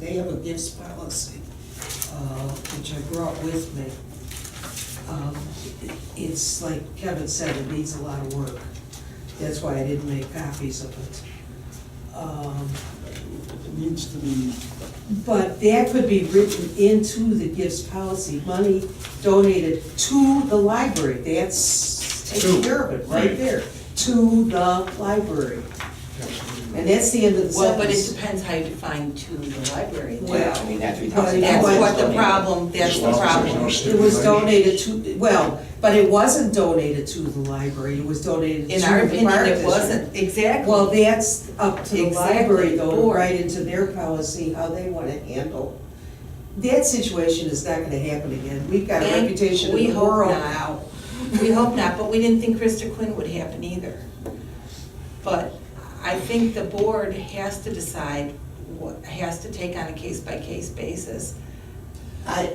they have a gifts policy, uh, which I brought with me. Um, It's like Kevin said, it needs a lot of work. That's why I didn't make copies of it. Um, It needs to be, But that could be written into the gifts policy, money donated to the library, that's taking To, care of it, right right. there, to the library. And that's the end of the Well, but it sentence. depends how you define to the library. then. Well, I mean, that's what but it That's was- what the problem, that's As the long as there's problem. no It was donated to, well, but it wasn't donated to the library, it was donated to In the our park district. opinion, it wasn't, exactly. Well, that's up to the Exactly. library though, to Or- write into their policy how they wanna handle. That situation is not gonna happen again, we've got a Thank- reputation in we the hope world not. now. We hope not, but we didn't think Krista Quinn would happen either. But I think the board has to decide, what has to take on a case-by-case basis. I,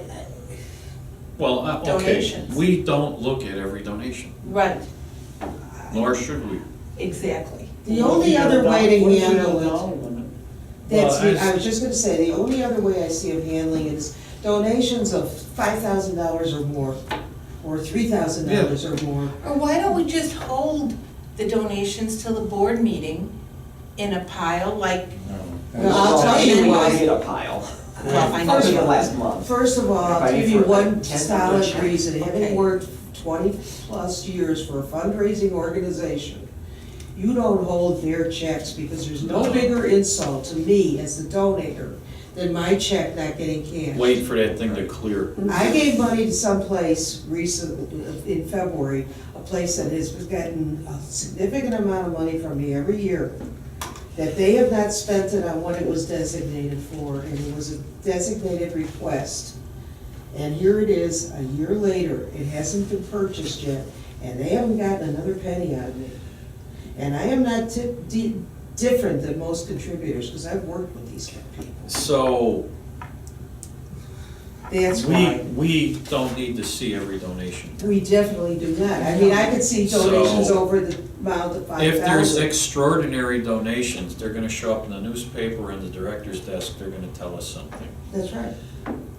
Well, uh, okay, Donations. we don't look at every donation, Right, nor should we. exactly. The only other way to handle it, that's, Well, the- I- I was just gonna say, the only other way I see of handling it is donations of five thousand dollars or more, or three thousand dollars or more. Or why don't we just hold the donations till the board meeting in a pile, like, Well, I'll tell you why. We did a pile. Well, I know First of you- the last month. First of all, I'll give you one solid reason, having Okay. worked twenty-plus years for a fundraising organization, you don't hold their checks, because there's no bigger insult to me as the donator than my check not getting cashed. Wait for that thing to clear. I gave money to someplace recent, in February, a place that has gotten a significant amount of money from me every year, that they have not spent it on what it was designated for, and it was a designated request. And here it is, a year later, it hasn't been purchased yet, and they haven't gotten another penny out of me. And I am not ti- di- different than most contributors, because I've worked with these kind of people. So, That's we, why. we don't need to see every donation. We definitely do not. I mean, I could see donations So- over the amount of five If there's thousand. extraordinary donations, they're gonna show up in the newspaper and the director's desk, they're gonna tell us something. That's right.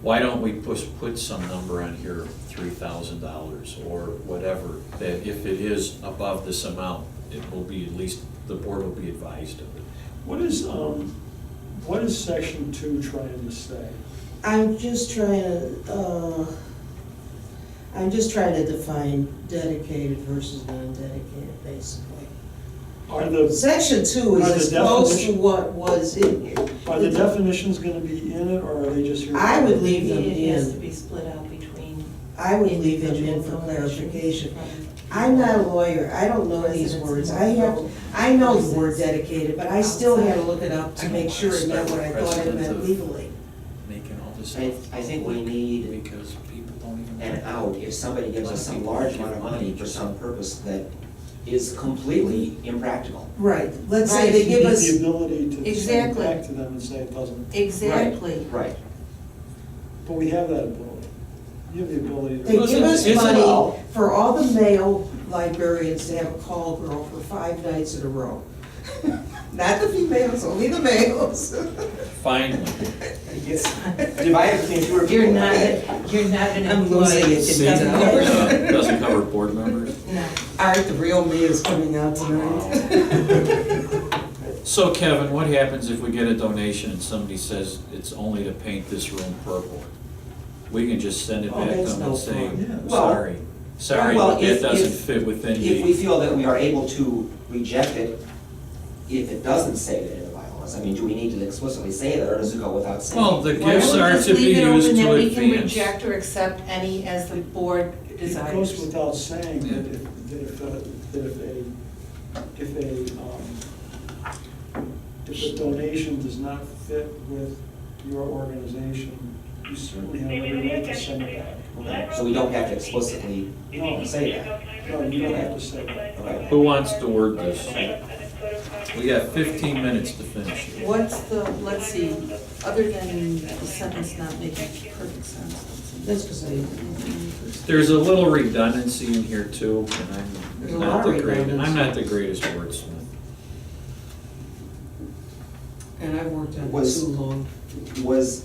Why don't we push, put some number on here, three thousand dollars or whatever, that if it is above this amount, it will be at least, the board will be advised of it. What is, um, what is section two trying to say? I'm just trying to, uh, I'm just trying to define dedicated versus non-dedicated, basically. Are the, Section two is By the as close to definition- what was in here. are the definitions gonna be in it, or are they just here? I would leave them it has to in. be split out between. I would leave them in for individual donations clarification. from- I'm not a lawyer. I don't know these Residents words. and I have, local I know the residents. word dedicated, but I still had to look it up to make sure it meant what I thought it meant legally. Making all this. I, I think we need Because people don't even. an out if somebody gives us some large amount of money for some purpose that is completely impractical. Right, let's say they Right. give us. The ability to send it Exactly. back to them and say it doesn't, Exactly. Right. but we have that ability. You have the ability They to. give us Isn't- isn't money all- for all the male librarians to have a call girl for five nights in a row. Not the females, only the males. Finally. Divided between fewer people. You're not, you're not an I'm losing employee. it It to doesn't now. cover- Uh, Doesn't cover board members. No. Art, the real me is coming out tonight. So Kevin, what happens if we get a donation and somebody says it's only to paint this room purple? We can just send it Oh, back to that's them no and say, fun. Yeah. Well- sorry, sorry, Well, but that if- doesn't if- fit within If the. we feel that we are able to reject it, if it doesn't say that in the bylaws, I mean, do we need to explicitly say that, or does it go without saying? Well, the Why gifts don't we are just to be leave it used open that to we can advance. reject or accept any as the board It goes desires? without saying Yeah. that if, that if, uh, that if a, if a, um, if a donation does not fit with your organization, you certainly have every right to send it back. Okay, So we don't have to explicitly say that. No, you don't have to say that. Okay. Who wants to word this? We got fifteen minutes to finish. What's the, let's see, other than the sentence not making perfect sense. That's because I, There's a little redundancy in here too, and There's a lot I'm not of the greatest, I'm redundancy. not the greatest wordsmith. and I've worked on it Was- too long. Was